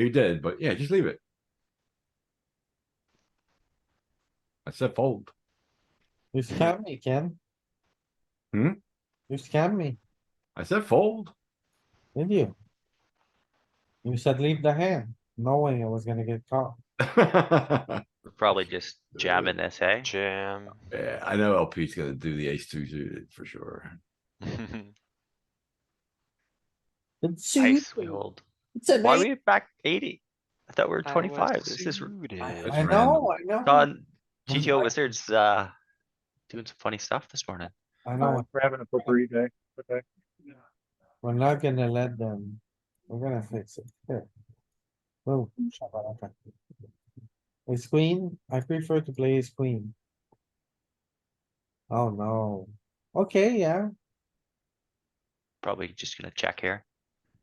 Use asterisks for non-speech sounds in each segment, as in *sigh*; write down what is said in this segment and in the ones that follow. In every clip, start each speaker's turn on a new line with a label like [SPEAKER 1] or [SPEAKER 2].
[SPEAKER 1] You did, but yeah, just leave it. I said fold.
[SPEAKER 2] You scam me, Ken.
[SPEAKER 1] Hmm?
[SPEAKER 2] You scam me,
[SPEAKER 1] I said fold. *laughs*
[SPEAKER 2] did you? You said leave the hand, knowing I was gonna get caught.
[SPEAKER 1] Yeah,
[SPEAKER 3] We're Probably just jamming this, hey?
[SPEAKER 4] Jam.
[SPEAKER 1] I know LP's gonna do the ace two suited for sure.
[SPEAKER 2] It's
[SPEAKER 3] Ice we
[SPEAKER 2] suited.
[SPEAKER 3] hold.
[SPEAKER 2] It's an
[SPEAKER 3] Why are
[SPEAKER 2] eight.
[SPEAKER 3] we back eighty? I thought we were
[SPEAKER 4] I was
[SPEAKER 3] twenty-five. This is
[SPEAKER 4] suited.
[SPEAKER 1] It's
[SPEAKER 2] I know, I know,
[SPEAKER 3] *laughs* Don, GTO Wizards, uh, doing some funny stuff this morning.
[SPEAKER 2] I
[SPEAKER 5] Uh,
[SPEAKER 2] know,
[SPEAKER 5] We're having a potpourri day, okay?
[SPEAKER 2] we're not gonna let them, we're gonna fix it, here. Boom. shakalaka. Ace queen, I prefer to play ace queen. Oh no, okay, yeah,
[SPEAKER 3] Probably just gonna check here.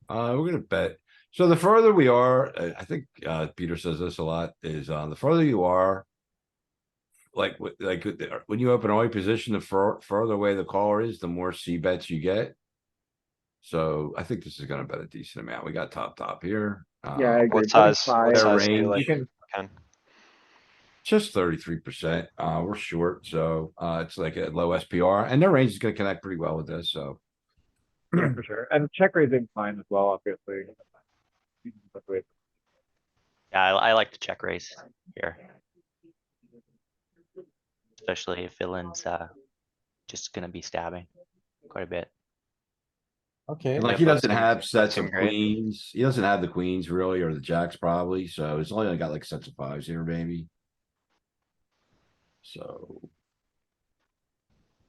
[SPEAKER 1] Uh, we're gonna bet. So the further we are, uh, I think, uh, Peter says this a lot, is, uh, the further you are. Like, wi- like, with the- when you open all your position, the fur- further away the caller is, the more C bets you get. So I think this is gonna bet a decent amount. We got top, top here.
[SPEAKER 5] Yeah, I
[SPEAKER 1] Um,
[SPEAKER 5] agree.
[SPEAKER 4] What size,
[SPEAKER 5] Forty-five.
[SPEAKER 4] what size do
[SPEAKER 1] range.
[SPEAKER 4] you
[SPEAKER 1] You
[SPEAKER 4] like,
[SPEAKER 1] can-
[SPEAKER 4] Ken?
[SPEAKER 1] Just thirty-three percent. Uh, we're short, so, uh, it's like a low SPR and their range is gonna connect pretty well with this, so.
[SPEAKER 5] Yeah, for sure. And check raising fine as well, obviously. But wait,
[SPEAKER 3] Yeah, I, I like to check raise here. Especially if villain's, uh, just gonna be stabbing quite a bit.
[SPEAKER 2] okay.
[SPEAKER 1] And like he
[SPEAKER 4] but
[SPEAKER 1] doesn't
[SPEAKER 4] some-
[SPEAKER 1] have sets
[SPEAKER 4] some
[SPEAKER 1] of
[SPEAKER 4] great-
[SPEAKER 1] queens, he doesn't have the queens really, or the jacks probably, so he's only got like sets of fives here, maybe. So,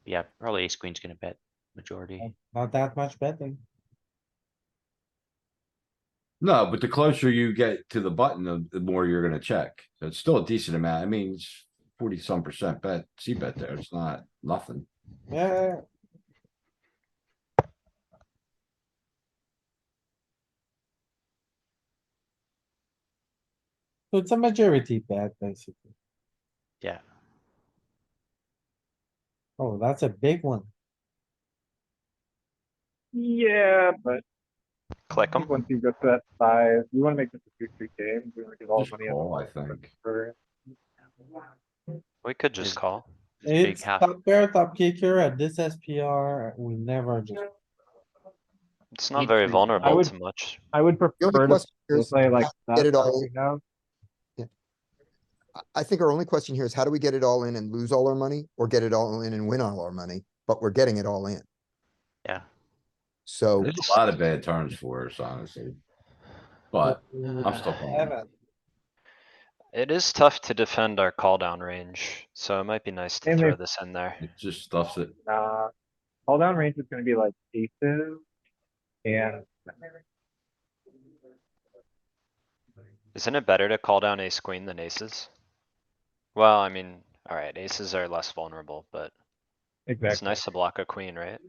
[SPEAKER 3] Yeah, probably ace queen's gonna bet majority.
[SPEAKER 2] Not that much betting.
[SPEAKER 1] no, but the closer you get to the button, the- the more you're gonna check, so it's still a decent amount, I mean, it's forty some percent bet, C bet there, it's not nothing.
[SPEAKER 2] Yeah. So It's a majority bet, basically.
[SPEAKER 3] Yeah.
[SPEAKER 2] Oh, that's a big one.
[SPEAKER 5] Yeah, but I
[SPEAKER 4] Click
[SPEAKER 5] think
[SPEAKER 4] them.
[SPEAKER 5] once you get to that size, you wanna make this a two, three game, we wanna give all the
[SPEAKER 1] Just
[SPEAKER 5] money.
[SPEAKER 1] call, I think,
[SPEAKER 5] for-
[SPEAKER 4] We could just
[SPEAKER 3] Is-
[SPEAKER 4] call.
[SPEAKER 3] Big
[SPEAKER 2] It's
[SPEAKER 3] half.
[SPEAKER 2] top pair, top kicker at this SPR. We never just,
[SPEAKER 4] It's not very
[SPEAKER 5] I
[SPEAKER 4] vulnerable
[SPEAKER 5] would-
[SPEAKER 4] to much.
[SPEAKER 5] I would
[SPEAKER 6] The only
[SPEAKER 5] prefer to
[SPEAKER 6] question here is,
[SPEAKER 5] play like
[SPEAKER 6] how
[SPEAKER 5] that.
[SPEAKER 6] do we get it
[SPEAKER 5] that
[SPEAKER 6] all-
[SPEAKER 5] we have.
[SPEAKER 6] I- I think our only question here is how do we get it all in and lose all our money or get it all in and win all our money? But we're getting it all in.
[SPEAKER 3] Yeah.
[SPEAKER 6] So
[SPEAKER 1] there's a lot of bad turns for us, honestly. But I'm still calling,
[SPEAKER 2] Seven.
[SPEAKER 4] It is tough to defend our call down range, so it might be nice to
[SPEAKER 5] And
[SPEAKER 4] throw
[SPEAKER 5] if-
[SPEAKER 4] this in there.
[SPEAKER 1] it just stuffs it,
[SPEAKER 5] Nah, all down range is gonna be like aces and
[SPEAKER 4] Isn't it better to call down ace queen than aces? Well, I mean, alright, aces are less vulnerable, but it's
[SPEAKER 5] exactly.
[SPEAKER 4] nice to block a queen, right?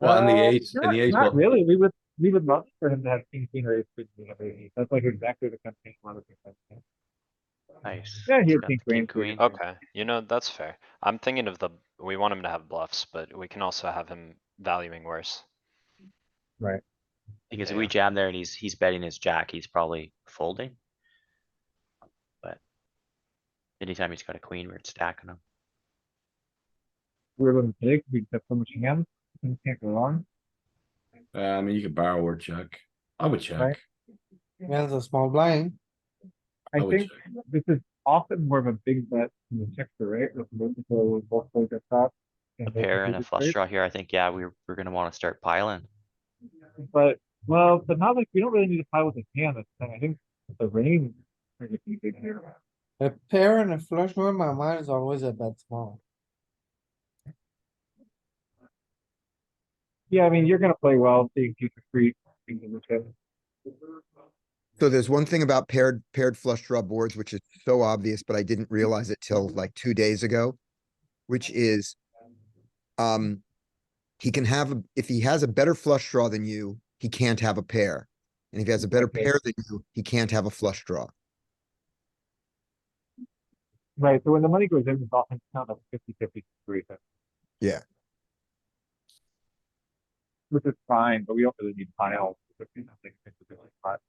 [SPEAKER 1] well, and the
[SPEAKER 5] Uh,
[SPEAKER 1] ace,
[SPEAKER 5] not-
[SPEAKER 1] and the ace, will-
[SPEAKER 5] Not really, we would, we would love for him to have king, queen, or ace, queen, queen, or ace. That's like exactly the kind of thing a lot of people. have.
[SPEAKER 3] Nice.
[SPEAKER 5] Yeah,
[SPEAKER 3] He's
[SPEAKER 5] here,
[SPEAKER 3] got
[SPEAKER 5] king,
[SPEAKER 3] the
[SPEAKER 5] queen, queen.
[SPEAKER 3] queen.
[SPEAKER 4] Okay, you know, that's fair. I'm thinking of the, we want him to have bluffs, but we can also have him valuing worse.
[SPEAKER 3] Because
[SPEAKER 4] Yeah.
[SPEAKER 3] we jam there and he's, he's betting his jack, he's probably folding. But. Anytime he's got a queen, we're stacking him.
[SPEAKER 5] We're going to take, we have so much hands, things can't go wrong.
[SPEAKER 1] uh, I mean, you could barrel or check, I would check.
[SPEAKER 5] Right.
[SPEAKER 2] He has a small blind.
[SPEAKER 5] I
[SPEAKER 1] I would
[SPEAKER 5] think this is often more of a big bet than the checker, right? With both people with both play the top.
[SPEAKER 3] A pair and a flush
[SPEAKER 5] strike.
[SPEAKER 3] draw here, I think, yeah, we're, we're gonna wanna start piling.
[SPEAKER 5] But, well, but not like, we don't really need to pile with a hand, that's the thing. I think the range. is a pretty big here.
[SPEAKER 2] A pair and a flush draw, in my mind is always a bet small.
[SPEAKER 5] Yeah, I mean, you're gonna play well, seeing future free, things in the chip.
[SPEAKER 6] so there's one thing about paired paired flush draw boards, which is so obvious, but I didn't realize it till like two days ago, which is um he can have a, if he has a better flush draw than you, he can't have a pair. And if he has a better
[SPEAKER 5] Okay.
[SPEAKER 6] pair than you, he can't have a flush draw.
[SPEAKER 5] Right, so when the money goes in, it's often not a fifty fifty reason.
[SPEAKER 6] Yeah.
[SPEAKER 5] Which is fine, but we don't really need piles. but, you know, they- they could be like, hot.